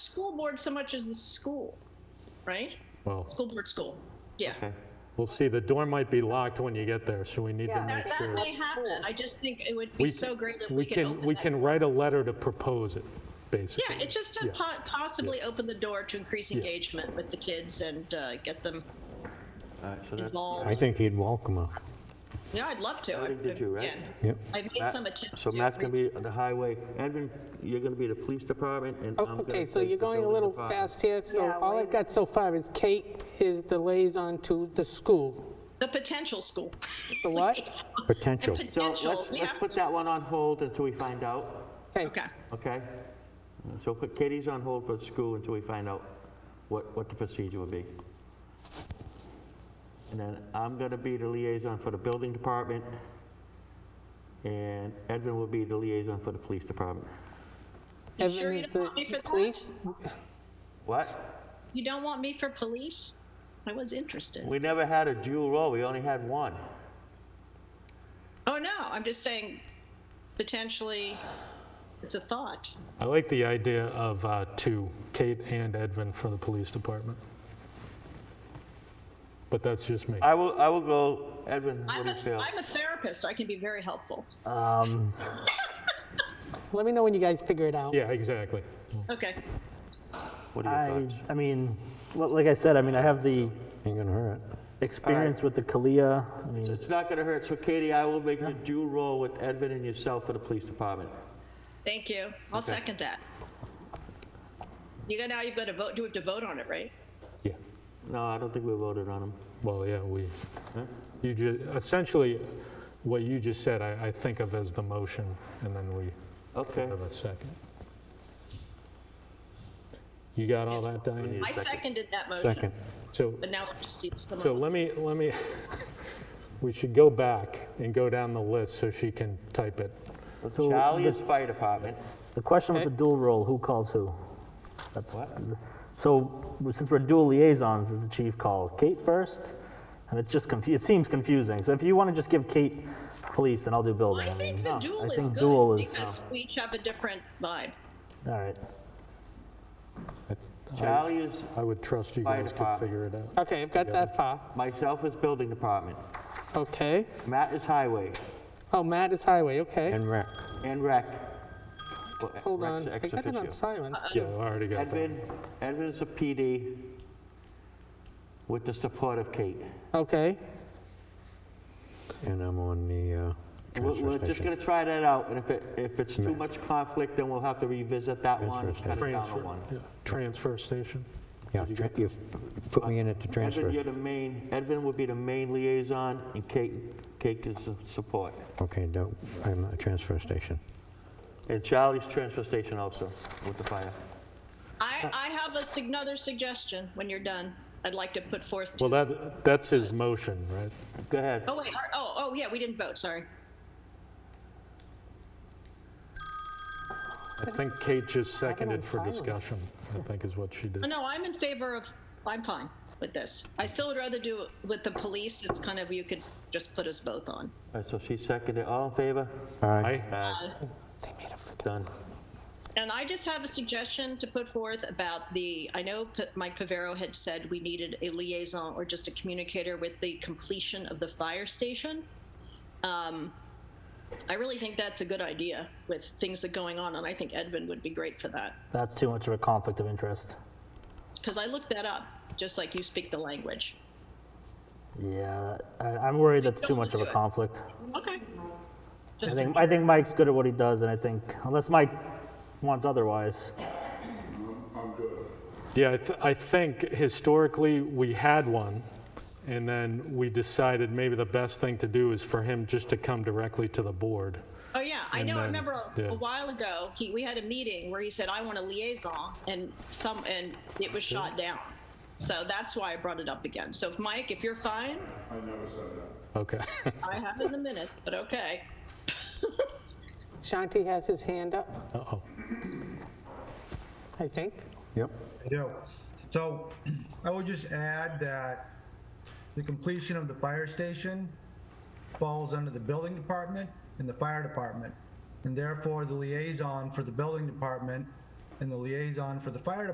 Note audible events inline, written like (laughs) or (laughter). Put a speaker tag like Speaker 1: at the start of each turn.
Speaker 1: school board so much as the school, right?
Speaker 2: Well,
Speaker 1: School board, school. Yeah.
Speaker 2: we'll see. The door might be locked when you get there, so we need to
Speaker 3: Yeah.
Speaker 2: make
Speaker 1: That, that
Speaker 2: sure.
Speaker 1: may happen. I just think it would be
Speaker 2: We
Speaker 1: so
Speaker 2: can-
Speaker 1: great if we, could open
Speaker 2: We
Speaker 1: that.
Speaker 2: can write a letter to propose it, basically.
Speaker 1: Yeah, it's just to
Speaker 2: Yeah.
Speaker 1: po- possibly open the door to increase engagement with the kids and uh, get them
Speaker 4: All right, so that's,
Speaker 1: involved.
Speaker 5: I think he'd welcome them.
Speaker 1: yeah, I'd love to.
Speaker 4: already
Speaker 1: I-
Speaker 4: did you, right?
Speaker 1: again,
Speaker 5: Yep.
Speaker 1: I made
Speaker 4: Matt-
Speaker 1: some attempts.
Speaker 4: so
Speaker 1: to
Speaker 4: Matt's going to be on the highway, Edvin, you're going to be the police department, and I'm
Speaker 6: Oh,
Speaker 4: going to
Speaker 6: Okay, so you're going a little fast here, so
Speaker 3: Yeah,
Speaker 6: all
Speaker 3: wait
Speaker 6: I've got so far is Kate is the liaison to the school.
Speaker 1: the potential school. (laughs)
Speaker 6: The what?
Speaker 5: Potential.
Speaker 1: The
Speaker 4: So
Speaker 1: potential.
Speaker 4: let's,
Speaker 1: we
Speaker 4: let's
Speaker 1: have
Speaker 4: put
Speaker 1: to-
Speaker 4: that one on hold until we find out,
Speaker 1: Okay.
Speaker 4: okay? So put Katie's on hold for the school until we find out what, what the procedure will be. And then I'm going to be the liaison for the building department, and Edvin will be the liaison for the police department.
Speaker 1: You
Speaker 6: Evan
Speaker 1: sure you
Speaker 6: is
Speaker 1: don't
Speaker 6: the
Speaker 1: want me for that?
Speaker 6: police.
Speaker 4: What?
Speaker 1: You don't want me for police? I was interested.
Speaker 4: We never had a dual role, we only had one.
Speaker 1: Oh no, I'm just saying potentially it's a thought.
Speaker 2: I like the idea of uh, two, Kate and Edvin for the police department. But that's just me.
Speaker 4: I will, I will go, Edvin, what
Speaker 1: I'm
Speaker 4: do you
Speaker 1: a,
Speaker 4: feel?
Speaker 1: I'm a therapist. I can be very helpful.
Speaker 6: Let me know when you guys figure it out.
Speaker 2: Yeah, exactly.
Speaker 1: Okay.
Speaker 4: What are your
Speaker 7: I,
Speaker 4: thoughts?
Speaker 7: I mean, well, like I said, I mean, I have the
Speaker 5: Ain't gonna hurt.
Speaker 7: experience with the Kalia. I mean,
Speaker 4: It's not going to hurt, so Katie, I will make you dual role with Edvin and yourself for the police department.
Speaker 1: Thank you. I'll second that. You got now you've got to vote do have to vote on it, right?
Speaker 2: Yeah.
Speaker 4: No, I don't think we voted on them.
Speaker 2: Well, yeah, we, you ju, essentially, what you just said, I, I think of as the motion, and then we
Speaker 4: Okay,
Speaker 2: have a second. You got all that, Diane?
Speaker 1: I seconded that motion.
Speaker 5: Second.
Speaker 2: So
Speaker 1: But now we'll see someone
Speaker 2: So
Speaker 1: else.
Speaker 2: let me, let me, (laughs) we should go back and go down the list so she can type it.
Speaker 7: so
Speaker 4: Charlie
Speaker 7: the-
Speaker 4: is fire department.
Speaker 7: The question with the dual role, who calls who? That's,
Speaker 4: What?
Speaker 7: so since we're dual liaisons, does the chief call Kate first? And it's just confu, it seems confusing. So if you want to just give Kate police, then I'll do building.
Speaker 1: I think the
Speaker 7: mean,
Speaker 1: duel
Speaker 7: I
Speaker 1: is
Speaker 7: think
Speaker 1: good
Speaker 7: duel is-
Speaker 1: because we each have a different vibe.
Speaker 7: All right.
Speaker 4: Charlie is,
Speaker 2: I would trust you
Speaker 4: Fire
Speaker 2: guys could
Speaker 4: department.
Speaker 2: figure it out.
Speaker 6: Okay, I've got that far.
Speaker 4: myself is building department.
Speaker 6: Okay.
Speaker 4: Matt is highway
Speaker 6: Oh, Matt is highway, okay.
Speaker 5: And rec.
Speaker 4: and rec. Well,
Speaker 6: Hold
Speaker 4: rec's
Speaker 6: on, I
Speaker 4: ex
Speaker 6: got it on
Speaker 4: officio.
Speaker 6: silence.
Speaker 2: Yeah, I already got that.
Speaker 4: Edvin, Edvin is a PD with the support of Kate.
Speaker 6: Okay,
Speaker 5: And I'm on the uh,
Speaker 4: We're
Speaker 5: transfer
Speaker 4: we're just
Speaker 5: station.
Speaker 4: going to try that out, and if it, if it's too
Speaker 5: Matt.
Speaker 4: much conflict, then we'll have to revisit that one, and
Speaker 5: Transfer
Speaker 4: cut it down to
Speaker 2: Transfer,
Speaker 4: one.
Speaker 2: yeah, transfer station.
Speaker 5: Yeah, tra- you put me in at the
Speaker 4: Edvin,
Speaker 5: transfer.
Speaker 4: you're the main, Edvin will be the main liaison, and Kate, Kate is the support.
Speaker 5: Okay, no, I'm at the transfer station.
Speaker 4: And Charlie's transfer station also with the fire.
Speaker 1: I, I have a, sig- another suggestion when you're done. I'd like to put forth.
Speaker 2: Well, that, that's his motion, right?
Speaker 4: Go ahead.
Speaker 1: oh, wait. are- Oh, oh, yeah, we didn't vote. Sorry.
Speaker 2: I think Kate just
Speaker 6: have it on
Speaker 2: seconded for
Speaker 6: silence.
Speaker 2: discussion, I think is what she
Speaker 1: Oh,
Speaker 2: did.
Speaker 1: No, I'm in favor of, I'm fine with this. I still would rather do it with the police. It's kind of, you could just put us both on.
Speaker 4: All right, so she seconded, all in favor?
Speaker 5: Aye.
Speaker 2: Aye?
Speaker 4: Done.
Speaker 1: And I just have a suggestion to put forth about the, I know P- Mike Pavero had said we needed a liaison or just a communicator with the completion of the fire station. Um, I really think that's a good idea with things that are going on, and I think Edvin would be great for that.
Speaker 7: That's too much of a conflict of interest.
Speaker 1: Because I looked that up, just like you speak the language.
Speaker 7: Yeah, I, I'm worried that's too
Speaker 1: Don't
Speaker 7: much of
Speaker 1: do
Speaker 7: a
Speaker 1: it.
Speaker 7: conflict.
Speaker 1: Okay.
Speaker 7: I
Speaker 1: Just
Speaker 7: think, I think Mike's good at what he does, and I think, unless Mike wants otherwise,
Speaker 2: Yeah, I, th- I think historically, we had one, and then we decided maybe the best thing to do is for him just to come directly to the board.
Speaker 1: Oh yeah, I
Speaker 2: And
Speaker 1: know. I
Speaker 2: then-
Speaker 1: remember a,
Speaker 2: yeah.
Speaker 1: a while ago he we had a meeting where he said I want a liaison, and some and it was shot down. So that's why I brought it up again. So if Mike, if you're fine,
Speaker 2: Okay. (laughs)
Speaker 1: I have it in the minute, but okay.
Speaker 6: Shanti has his hand up,
Speaker 2: Uh-oh.
Speaker 6: I think.
Speaker 5: Yep.
Speaker 8: I do. So (clears throat) I would just add that the completion of the fire station falls under the building department and the fire department. And therefore, the liaison for the building department and the liaison for the fire department